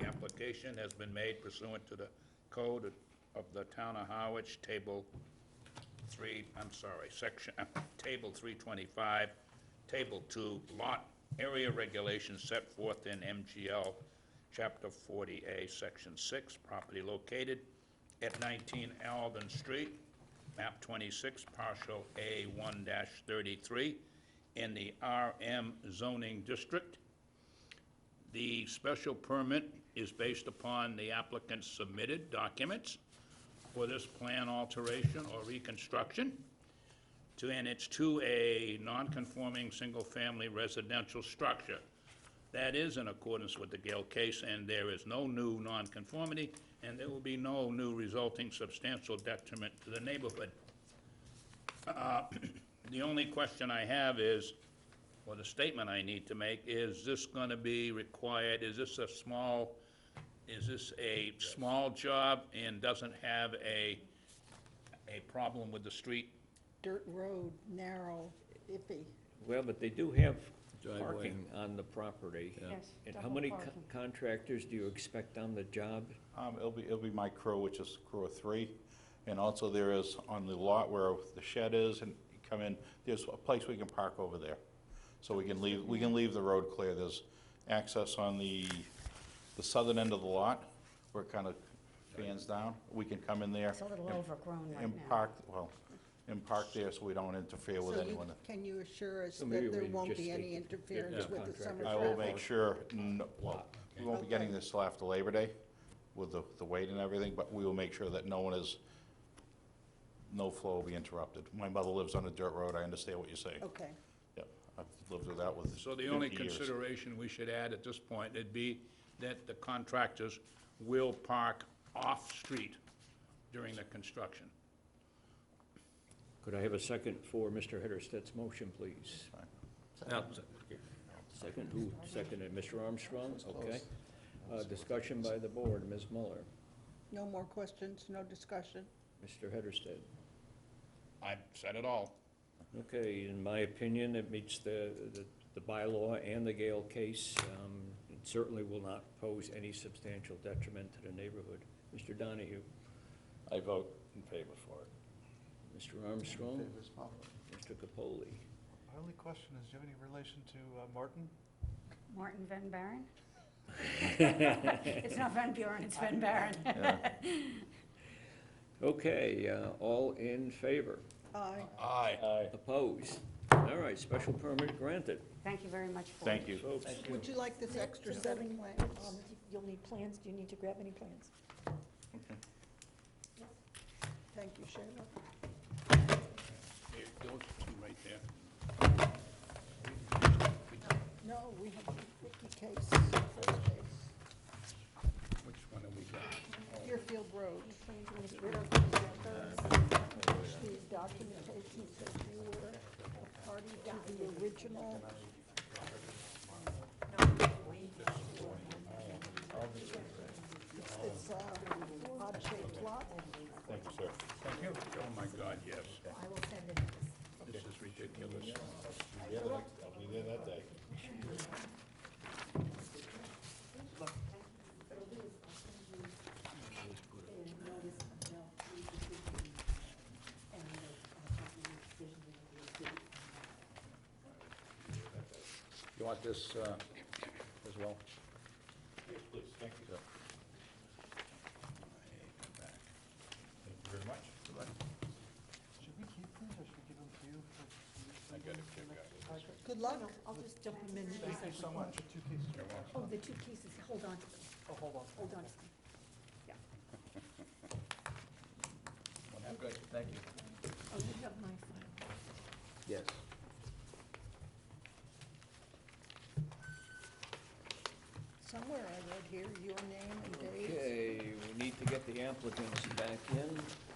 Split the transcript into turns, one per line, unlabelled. application has been made pursuant to the code of the town of Harwich, table three, I'm sorry, section, uh, table three twenty-five, table two, lot area regulations set forth in MGL, chapter forty A, section six, property located at nineteen Alvin Street, map twenty-six, partial A one thirty-three, in the RM zoning district. The special permit is based upon the applicant's submitted documents for this plan alteration or reconstruction. To, and it's to a non-conforming single-family residential structure. That is in accordance with the Gale case, and there is no new nonconformity, and there will be no new resulting substantial detriment to the neighborhood. Uh, The only question I have is, or the statement I need to make, is this gonna be required, is this a small, is this a small job and doesn't have a, a problem with the street?
dirt road, narrow, iffy.
Well, but they do have
Driveway.
parking on the property.
Yes,
And how
double
many co-
parking.
contractors do you expect on the job?
Um, it'll be, it'll be my crew, which is crew of three. And also there is on the lot where the shed is and you come in, there's a place we can park over there. So we can leave, we can leave the road clear. There's access on the, the southern end of the lot where it kind of fans down. We can come in there.
It's a little
and-
overgrown right now.
And park, well, and park there so we don't interfere with
So you-
anyone.
Can you assure us
So maybe
that there
we
won't
just
be
take
any
the-
interference
the
with the summer
contractor.
I
traffic?
will make sure, n- well, we won't be getting this till after Labor Day with the, the wait and everything, but we will make sure that no one is, no flow will be interrupted. My mother lives on a dirt road, I understand what you're saying.
Okay,
Yep, I've lived with that with
So the only
50 years.
consideration we should add at this point, it'd be that the contractors will park off-street during the construction.
Could I have a second for Mr. Hedersted's motion, please? Second, who seconded? Mr. Armstrong? Okay. Uh, Discussion by the board, Ms. Muller,
no more questions, no discussion?
Mr. Hedersted.
I've said it all.
Okay, in my opinion, it meets the, the- the bylaw and the Gale case. Um, It certainly will not pose any substantial detriment to the neighborhood. Mr. Donahue,
I vote in favor for it.
Mr. Armstrong, Mr. Capoli.
My only question is, do you have any relation to uh, Martin?
Martin Van Buren? It's not Van Buren, it's Van Buren.
Okay, uh, all in favor?
Aye.
Aye.
Opposed? All right, special permit granted.
Thank you very much for.
Thank you.
Folks,
Would you like this extra setting plan?
Um, You'll need plans, do you need to grab any plans?
Thank you, Sharon.
Here, those two right there.
No, we have the Ricky case, first case,
Which one have we got?
Deerfield Road. The documentation says you were a party to the original It's, it's a odd-shaped lot.
Thank you, sir.
Thank you. Oh, my God, yes.
I will send it.
This is ridiculous.
I'll be there that day.
You want this, uh, as well?
Yes, please, thank you, sir. Thank you very much.
Should we keep these, or should we give them to you? for-
I got it, I got
Good luck.
I'll just dump them in.
Thank you so much. The Two cases.
Oh, the two cases, hold on to them,
Oh, hold on.
hold on to them. Yeah. Good, thank you. Oh, you have my file.
Yes.
Somewhere I read here, your name and date.
Okay, we need to get the applicants back in.